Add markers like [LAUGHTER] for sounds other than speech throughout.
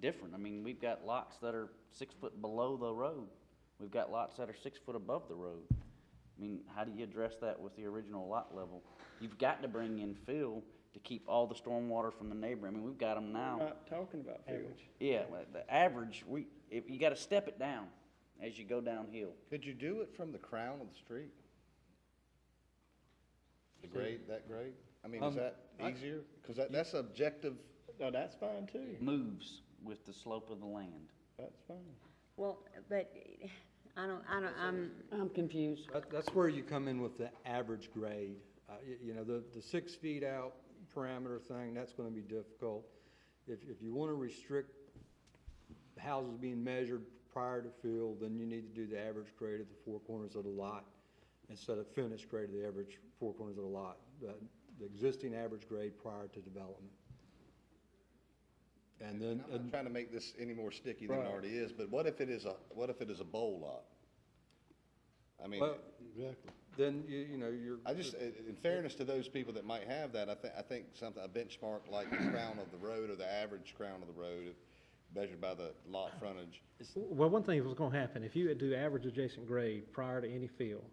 different. I mean, we've got lots that are six foot below the road. We've got lots that are six foot above the road. I mean, how do you address that with the original lot level? You've got to bring in fill to keep all the stormwater from the neighbor. I mean, we've got them now. Not talking about field. Yeah, well, the average, we, if, you gotta step it down as you go downhill. Could you do it from the crown of the street? The grade, that grade? I mean, is that easier? Because that, that's objective, No, that's fine too. It moves with the slope of the land. That's fine. Well, but I don't, I don't, I'm, I'm confused. That, that's where you come in with the average grade. Uh, you, you know, the, the six feet out parameter thing, that's gonna be difficult. If, if you wanna restrict houses being measured prior to fill, then you need to do the average grade of the four corners of the lot instead of finished grade of the average four corners of the lot, the, the existing average grade prior to development. And then, and I'm not trying to make this any more sticky than it already is, but what if it is a, what if it is a bowl lot? I mean, well, then you, you know, you're. I just, i- in fairness to those people that might have that, I think, I think something, a benchmark like the crown of the road or the average crown of the road measured by the lot frontage, Well, one thing was gonna happen, if you do average adjacent grade prior to any fill,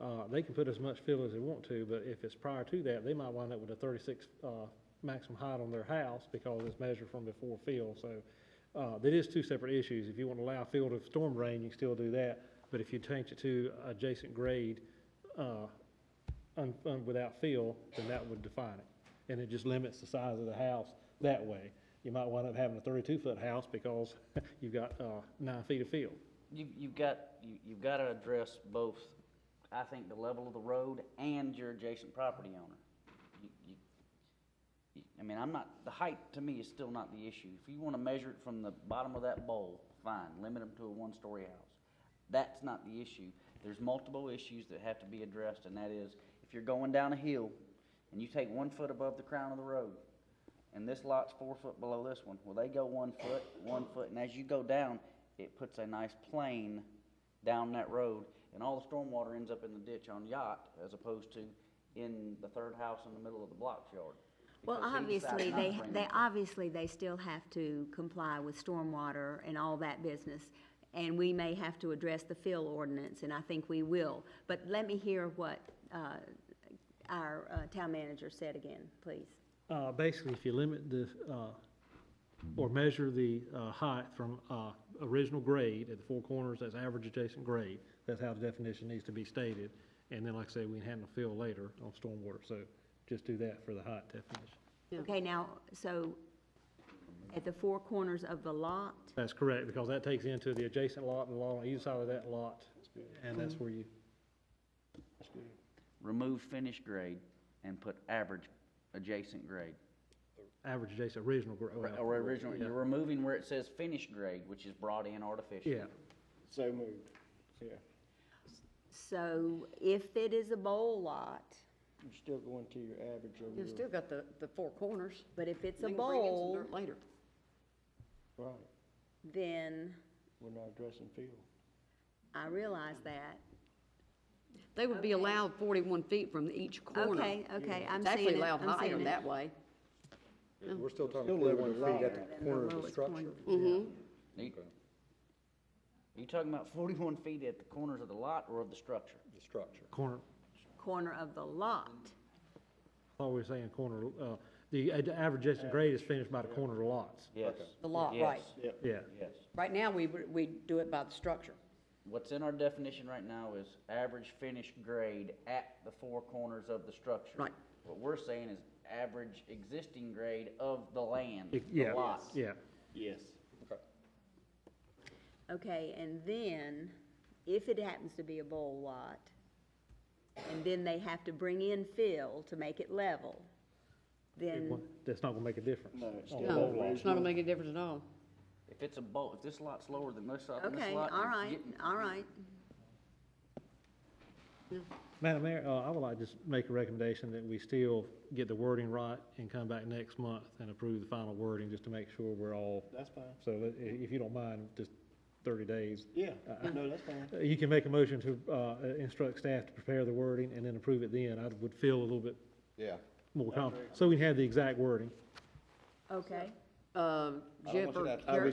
uh, they can put as much fill as they want to, but if it's prior to that, they might wind up with a thirty-six, uh, maximum height on their house because it's measured from before fill, so, uh, that is two separate issues. If you want to allow fill to storm drain, you can still do that, but if you change it to adjacent grade, uh, un, un, without fill, then that would define it. And it just limits the size of the house that way. You might wind up having a thirty-two foot house because [LAUGHS] you've got, uh, nine feet of fill. You, you've got, you, you've gotta address both, I think, the level of the road and your adjacent property owner. You- you- you- I mean, I'm not, the height to me is still not the issue. If you wanna measure it from the bottom of that bowl, fine, limit them to a one-story house. That's not the issue. There's multiple issues that have to be addressed, and that is, if you're going down a hill and you take one foot above the crown of the road, and this lot's four foot below this one, well, they go one foot, one foot, and as you go down, it puts a nice plane down that road, and all the stormwater ends up in the ditch on yacht as opposed to in the third house in the middle of the block yard. well, because he decided obviously, not to they, bring they, it. obviously, they still have to comply with stormwater and all that business. And we may have to address the fill ordinance, and I think we will. But let me hear what, uh, our, uh, town manager said again, please. Uh, basically, if you limit the, uh, or measure the, uh, height from, uh, original grade at the four corners, that's average adjacent grade. That's how the definition needs to be stated. And then, like I say, we can handle fill later on stormwater, so just do that for the height definition. Okay, now, so at the four corners of the lot, That's correct, because that takes into the adjacent lot and the lot on either side of that lot, and that's where you, Remove finished grade and put average adjacent grade. average adjacent original grade. Or original, you're removing where it says finished grade, which is brought in artificially. Yeah, So moved. Yeah. so if it is a bowl lot, You're still going to your average over You've your, still got the, the four corners. but if it's a They can bring in some bowl, dirt Later. right. then We're not addressing field. I realize that. They would be allowed forty-one feet from each corner. Mm. Okay, okay, I'm seeing It's actually it, allowed I'm higher seeing it. that way. We're still talking Still leveling forty-one feet at higher than the corner the of the lowest structure. Are you- are you talking about forty-one feet at the corners of the lot or of the structure? The structure. corner, Corner of the lot, I thought we were saying corner, uh, the ad- average adjacent grade is finished by the corner of the lots. Yes. The lot, right. Yes. Yep. Yeah, Yes. Right now, we, we do it by the structure. What's in our definition right now is average finished grade at the four corners of the structure. Right. What we're saying is average existing grade of the land, It- the yeah, lot. yeah. Yes. okay, and then, if it happens to be a bowl lot, and then they have to bring in fill to make it level, then, That's not gonna make a difference. Oh, No, it's on still No, the whole lot. it's not gonna make a difference at all. If it's a bowl, if this lot's lower than this lot, than this okay, lot. all it's right, getting- all right. Madam Mayor, uh, I would like to just make a recommendation that we still get the wording right and come back next month and approve the final wording, just to make sure we're all. That's fine. So i- if you don't mind, just thirty days. Yeah, no, that's fine. Uh, You can make a motion to, uh, instruct staff to prepare the wording and then approve it then. I would feel a little bit yeah. more confident, so we can have the exact wording. Okay, Uh, I uh, don't want you to Jeff or have to- Gary-